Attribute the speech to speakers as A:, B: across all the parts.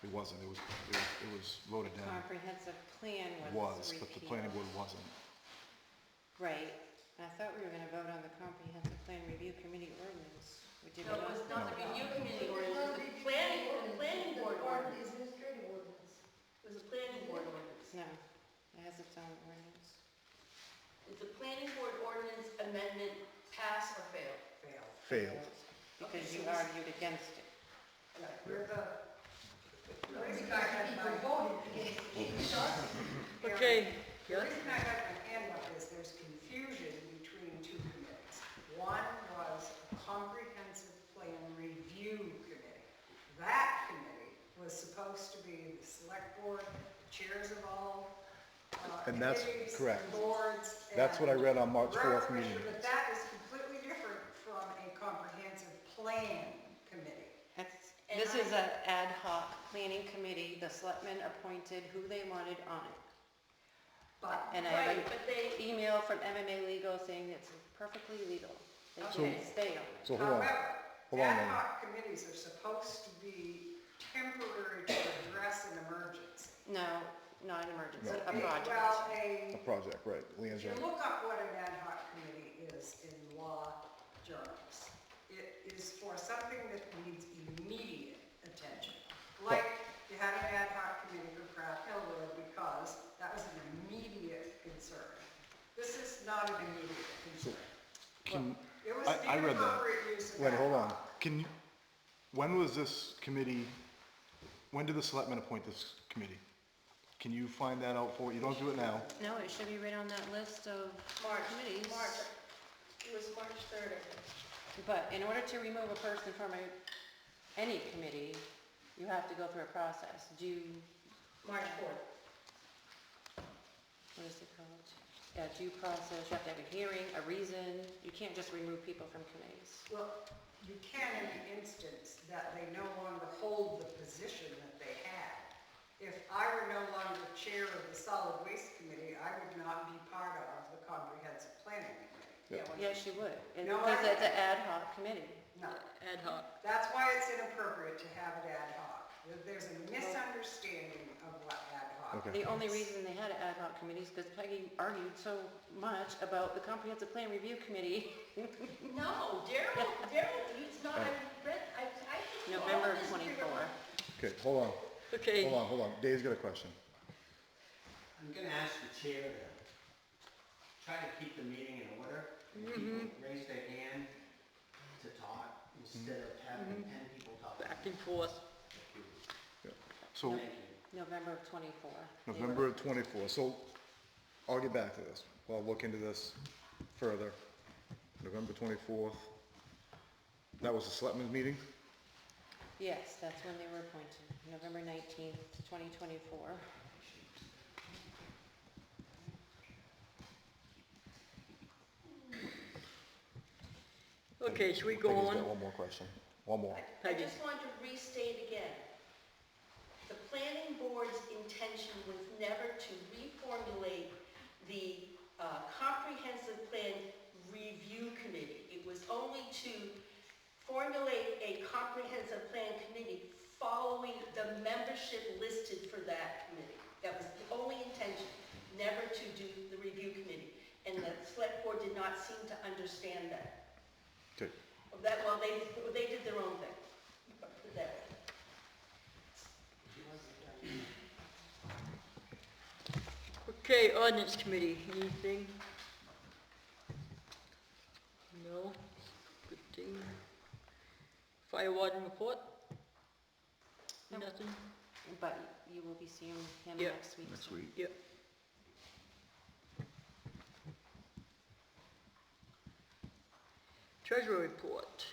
A: It wasn't, it was, it was- it was voted down,
B: comprehensive plan was
A: was,
B: repealed.
A: but the planning board wasn't.
B: Right, I thought we were gonna vote on the comprehensive plan review committee ordinance. We did
C: No, it
B: not.
C: was not the review committee
D: No,
C: ordinance, it was the planning, the planning board
D: The
C: ordinance.
D: administrative ordinance.
C: It was the planning board ordinance.
B: No, it has its own ordinance.
C: Did the planning board ordinance amendment pass or fail?
D: Fail.
A: Failed.
B: Because you argued against it.
D: We're the, we're the guy that people voted against.
E: Okay,
D: The reason I got my hand up is there's confusion between two committees. One was a comprehensive plan review committee. That committee was supposed to be the select board, chairs of all uh,
A: And that's
D: committees,
A: correct.
D: boards.
A: That's what I
D: and
A: read on March
D: road
A: 4th
D: commission,
A: meeting.
D: But that is completely different from a comprehensive plan committee.
B: That's,
C: And
B: this is
C: I-
B: an ad hoc planning committee, the selectmen appointed who they wanted on it.
D: But
B: And I have
C: Right,
B: an
C: but they,
B: email from MMA Legal saying it's perfectly legal. They
C: So-
B: can stay on it.
A: So hold on,
D: However,
A: Hold on a
D: Um, ad
A: minute.
D: hoc committees are supposed to be temporary to address an emergency.
B: No, not an emergency,
A: No.
B: a project.
D: Well, a,
A: a project, right, Leanne's
D: if you
A: right.
D: look up what an ad hoc committee is in law journals, it is for something that needs immediate attention. Like, you had an ad hoc committee for Craft Hill Road because that was an immediate concern. This is not an immediate concern.
A: Can,
D: It was
A: I- I
D: the
A: read that.
D: appropriate use of
A: wait,
D: ad
A: hold on,
D: hoc.
A: can you, when was this committee, when did the selectmen appoint this committee? Can you find that out for, you don't do it now,
B: No, it should be right on that list of
C: March,
B: committees.
C: March, it was March third, I think.
B: But in order to remove a person from a, any committee, you have to go through a process. Do you,
C: March fourth.
B: what is it called? A due process, you have to have a hearing, a reason. You can't just remove people from committees.
D: Well, you can in the instance that they no longer hold the position that they had. If I were no longer chair of the solid waste committee, I would not be part of the comprehensive planning committee.
A: Yeah.
B: Yes, you would. It-
D: No,
B: Because
D: I-
B: it's an ad hoc committee.
D: No,
E: ad hoc.
D: that's why it's inappropriate to have it ad hoc. There- There's a misunderstanding of what ad hoc
A: Okay.
D: is.
B: The only reason they had an ad hoc committee is because Peggy argued so much about the comprehensive plan review committee.
C: No, Daryl, Daryl, it's not, I read, I, I. looked through all
B: November
C: this and figured out-
B: 24.
A: okay, hold on, hold
E: Okay,
A: on, hold on, Dave's got a question.
F: I'm gonna ask the chair to try to keep the meeting in order. People raise their hand to talk instead of having ten people talk.
E: back and forth.
A: So,
F: Thank you.
B: November of twenty-four. They were-
A: November of twenty-four, so I'll get back to this, I'll look into this further. November twenty-fourth, that was the selectmen's meeting?
B: Yes, that's when they were appointed, November nineteenth, twenty twenty-four.
E: Okay, should we go
A: Peggy's got
E: on?
A: one more question, one more.
C: I
E: Peggy.
C: just want to restate again. The planning board's intention was never to reformulate the uh, comprehensive plan review committee. It was only to formulate a comprehensive plan committee following the membership listed for that committee. That was the only intention, never to do the review committee. And the select board did not seem to understand that.
A: Okay,
C: That, well, they, they did their own thing. Put it that way.
E: Okay, ordinance committee, anything? No, good thing. Fire warden report?
B: Nope.
E: Nothing?
B: But you will be seeing him
E: Yeah.
B: next week.
A: next week.
E: Yep. Treasurer report.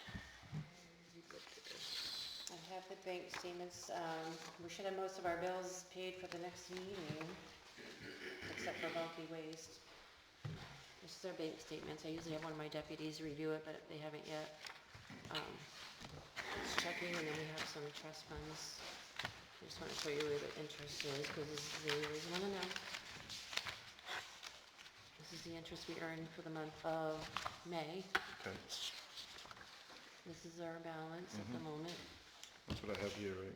E: You got this.
B: I have the bank statements, um, we should have most of our bills paid for the next meeting, except for bulky waste. This is our bank statements, I usually have one of my deputies review it, but they haven't yet. Um, Just checking, and then we have some trust funds. I just wanna show you where the interest is, cause this is the, always wanna know. This is the interest we earned for the month of May,
A: Okay,
B: this is our balance at the moment.
A: that's what I have here, right?